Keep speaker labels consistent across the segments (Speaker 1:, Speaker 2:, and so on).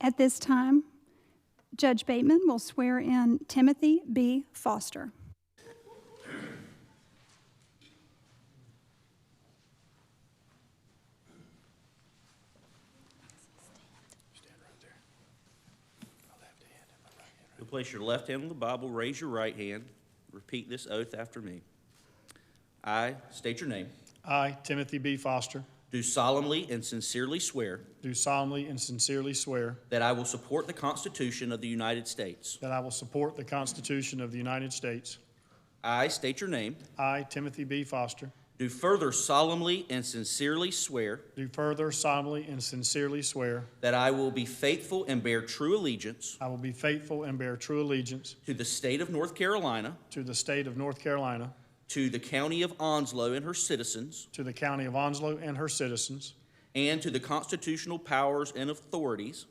Speaker 1: At this time, Judge Bateman will swear in Timothy B. Foster.
Speaker 2: You'll place your left hand on the Bible, raise your right hand, repeat this oath after me. I state your name.
Speaker 3: I, Timothy B. Foster,
Speaker 2: Do solemnly and sincerely swear
Speaker 3: do solemnly and sincerely swear
Speaker 2: that I will support the Constitution of the United States.
Speaker 3: that I will support the Constitution of the United States.
Speaker 2: I state your name.
Speaker 3: I, Timothy B. Foster,
Speaker 2: Do further solemnly and sincerely swear
Speaker 3: do further solemnly and sincerely swear
Speaker 2: that I will be faithful and bear true allegiance
Speaker 3: I will be faithful and bear true allegiance
Speaker 2: to the state of North Carolina,
Speaker 3: to the state of North Carolina,
Speaker 2: to the county of Onslow and her citizens,
Speaker 3: to the county of Onslow and her citizens,
Speaker 2: and to the constitutional powers and authorities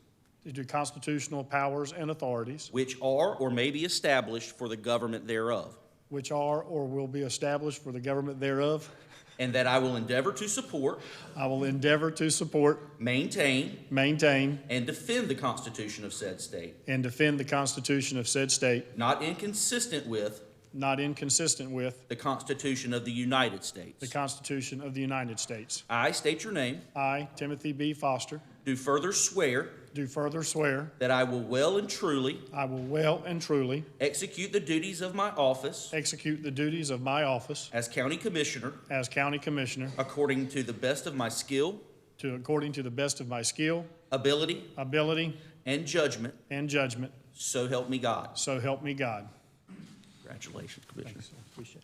Speaker 3: to the constitutional powers and authorities
Speaker 2: which are or may be established for the government thereof.
Speaker 3: which are or will be established for the government thereof.
Speaker 2: And that I will endeavor to support,
Speaker 3: I will endeavor to support,
Speaker 2: maintain,
Speaker 3: maintain,
Speaker 2: and defend the Constitution of said state,
Speaker 3: and defend the Constitution of said state,
Speaker 2: not inconsistent with
Speaker 3: not inconsistent with
Speaker 2: the Constitution of the United States.
Speaker 3: the Constitution of the United States.
Speaker 2: I state your name,
Speaker 3: I, Timothy B. Foster,
Speaker 2: do further swear
Speaker 3: do further swear
Speaker 2: that I will well and truly
Speaker 3: I will well and truly
Speaker 2: execute the duties of my office
Speaker 3: execute the duties of my office
Speaker 2: as County Commissioner
Speaker 3: as County Commissioner
Speaker 2: according to the best of my skill,
Speaker 3: to according to the best of my skill,
Speaker 2: ability,
Speaker 3: ability,
Speaker 2: and judgment,
Speaker 3: and judgment,
Speaker 2: so help me God.
Speaker 3: so help me God.
Speaker 2: Congratulations, Commissioner.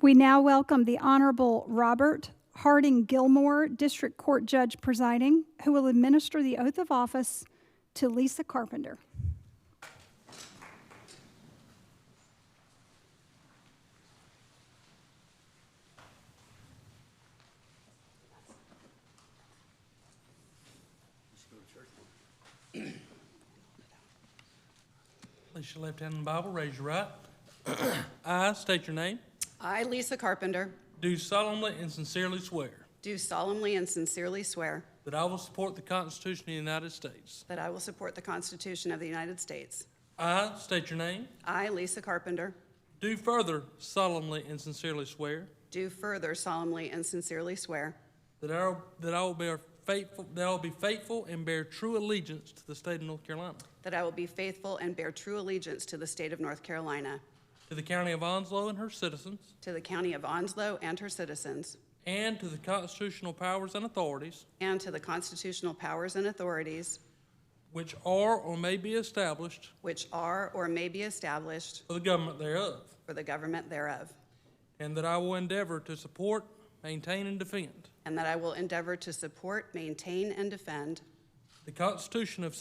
Speaker 1: We now welcome the Honorable Robert Harding Gilmore, District Court Judge presiding, who will administer the oath of office to Lisa Carpenter.
Speaker 4: Place your left hand on the Bible, raise your right. I state your name.
Speaker 5: I, Lisa Carpenter,
Speaker 4: Do solemnly and sincerely swear
Speaker 5: do solemnly and sincerely swear
Speaker 4: that I will support the Constitution of the United States.
Speaker 5: that I will support the Constitution of the United States.
Speaker 4: I state your name.
Speaker 5: I, Lisa Carpenter,
Speaker 4: Do further solemnly and sincerely swear
Speaker 5: do further solemnly and sincerely swear
Speaker 4: that I that I will bear faithful that I will be faithful and bear true allegiance to the state of North Carolina,
Speaker 5: that I will be faithful and bear true allegiance to the state of North Carolina,
Speaker 4: to the county of Onslow and her citizens,
Speaker 5: to the county of Onslow and her citizens,
Speaker 4: and to the constitutional powers and authorities
Speaker 5: and to the constitutional powers and authorities
Speaker 4: which are or may be established
Speaker 5: which are or may be established
Speaker 4: for the government thereof,
Speaker 5: for the government thereof,
Speaker 4: and that I will endeavor to support, maintain, and defend
Speaker 5: and that I will endeavor to support, maintain, and defend
Speaker 4: The Constitution of